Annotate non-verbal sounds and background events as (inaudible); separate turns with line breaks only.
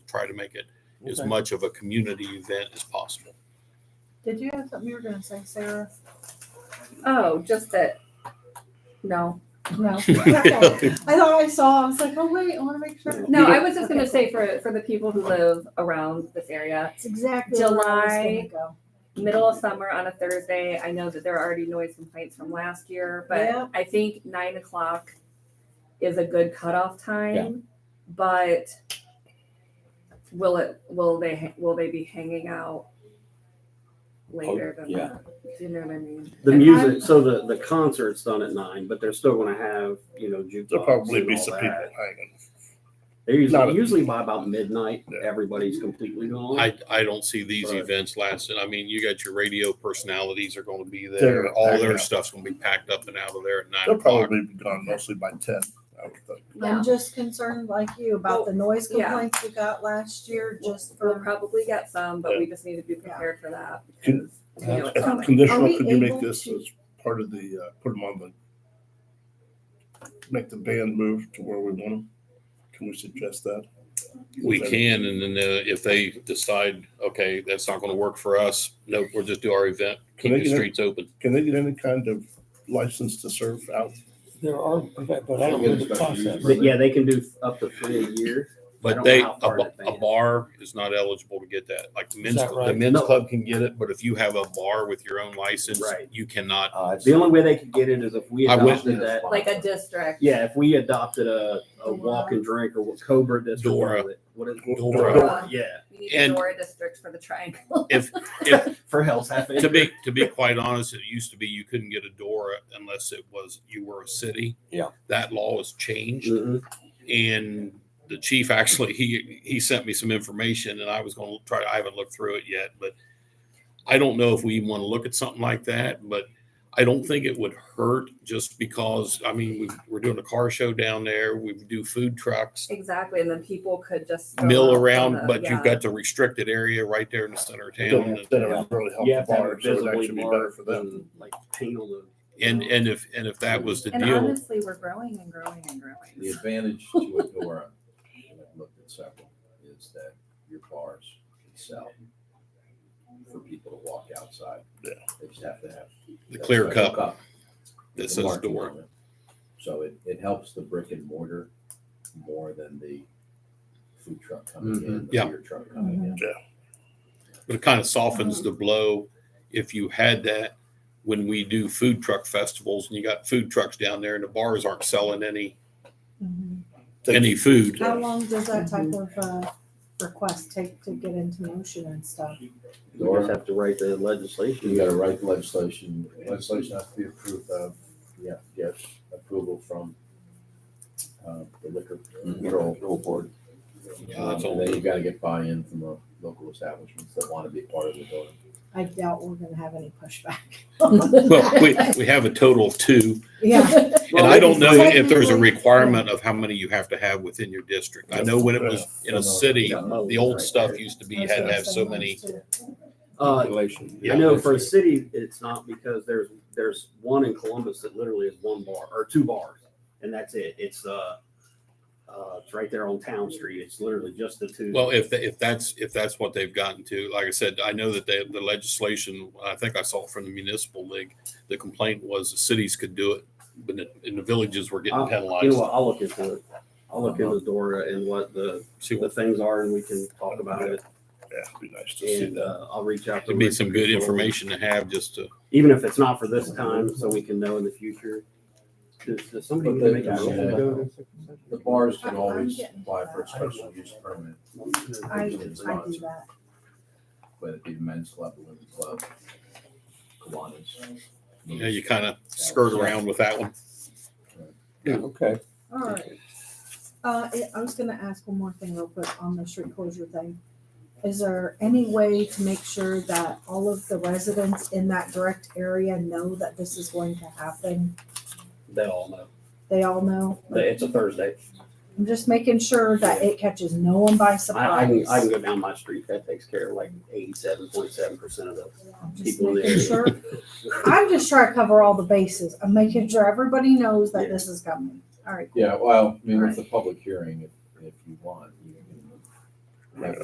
try to make it as
Okay.
much of a community event as
(laughs)
possible.
Did you have something you were gonna say, Sarah?
Oh, just that. No,
No. Okay. I thought I saw, I was like, oh wait, I wanna make sure.
no, I was just
Okay.
gonna say for, for the people who live around this area,
It's exactly where I was gonna
July,
go.
middle of summer on a Thursday, I know that there are already noise complaints from last year, but
Yeah.
I think nine o'clock is a good cutoff time, but will it, will they, ha- will they be hanging out later than
yeah.
that? Do you know what I mean?
The
And
music, so the, the concert's done at nine, but they're still gonna have, you know, jukebox.
There'll probably
and
be
all
some
that.
people hanging.
They're
Not
usually,
at-
usually by about midnight,
Yeah.
everybody's completely gone.
I, I don't see these
Right.
events lasting. I mean, you got your radio personalities are going to be there.
They're-
All
they're-
their stuff's going to be packed up and out of there at nine
They'll
o'clock.
probably be gone mostly by ten, I would think.
Yeah.
I'm just concerned like you about the noise
Well, yeah.
complaints we got last year, just
We'll
for,
probably get some, but we just need to be prepared for that.
Can-
because we know
uh,
it's coming.
Are
Conditional,
we
could you make
able
this
to-
as part of the, uh, put them on the, make the band move to where we want them? Can we suggest that?
We can, and then uh, if they decide, okay, that's not going to work for us, no, we'll just do our event, keep
Can they
the
get it?
streets open.
Can they get any kind of license to serve out?
There are, but but I don't know the process.
But yeah, they can do up to three a year. I
But
don't
they,
know
a,
how far
ba-
in
a bar is not eligible to get that. Like the men's,
that
cl- the
right?
men's
No.
club can get it, but if you have a bar with your own license,
Right.
you cannot.
The only way they could get it is if we
I went-
adopted that,
Like a district.
yeah, if we adopted a, a walk and drink or what Cobra district.
Dora.
What is?
Dora.
Dora, Yeah,
We need a
And-
Dora district for the triangle. (laughs)
If, if,
for Hell's Half Acre.
to be, to be quite honest, it used to be you couldn't get a door unless it was, you were a city.
Yeah.
That law has changed.
Mhm.
and the chief actually he he sent me some information and i was going to try i haven't looked through it yet but i don't know if we even want to look at something like that but i don't think it would hurt just because i mean we we're doing a car show down there we do food trucks
Exactly, and then people could just. go out
mill
to
around
the-
but you've
yeah.
got the restricted area right there in the center of town
Then then it would really help
You
the
have to have
bar,
it
so it'd
visibly
actually be better
marked
for them.
and like paint on the.
and and if and if that was the
And
deal
honestly, we're growing and growing and
The
growing.
advantage to a Dora, and I've looked at several, is that your bars can sell for people to walk outside.
Yeah.
They just have to have.
the
that
clear
special
cup
with
that
the
says
marking
door
on it. So it, it helps the brick and mortar more than the food truck coming in, the
Yeah.
beer truck coming in.
but it kind of softens the blow if you had that when we do food truck festivals and you got food trucks down there and the bars aren't selling any any food
how long does that type of, uh, request take to get into motion and stuff?
You just have to write the legislation.
You gotta write the legislation, legislation has to be approved of, you have to get approval from, uh, the liquor control. board.
Mm-hmm. Yeah,
Um,
that's all.
and then you gotta get buy-in from the local establishments that wanna be part of the board.
I doubt we're gonna have any pushback. (laughs)
well we, we have a total of two
Yeah,
and
Well,
i don't know
maybe-
if there's a requirement of how many you have to have within your district i know when it was in a city the old stuff used to be you had to have so many
Uh, I
Yeah.
know for a city, it's not because there's, there's one in Columbus that literally is one bar or two bars and that's it. It's, uh, uh, it's right there on Town Street. It's literally just the two.
Well, if, if that's, if that's what they've gotten to, like I said, I know that they, the legislation, I think I saw it from the municipal league, the complaint was the cities could do it, but the, and the villages were getting
I'll- You know
penalized.
what? I'll look into it. I'll look
Uh-huh.
into Dora and what the,
See,
the things are and we can talk about it.
Yeah, it'd be nice to see
And,
that.
uh, I'll reach out to.
it'd be
Rick
some good
Control.
information to have just to,
Even if it's not for this time, so we can know in the future. Does, does somebody need to make a motion to go to executive session?
The bars can
I'm
always
getting
apply for a
that.
special use permit,
I, I do that.
whether it be the men's club, the women's club, Kiwanis.
you know, you kind of skirt around with that one.
Okay.
All right. Uh, I- I was gonna ask one more thing real quick on the street closure thing. Is there any way to make sure that all of the residents in that direct area know that this is going to happen?
They all know.
They all know?
They- It's a Thursday.
I'm just making sure that it catches no one by
I, I can,
surprise.
I can go down my street. That takes care of like eighty-seven point seven percent of those.
I'm Just
people there.
making sure. I'm just trying to cover all the bases. I'm making sure everybody knows that this is coming. All right.
Yeah, well, I mean, with the public hearing, if, if you want,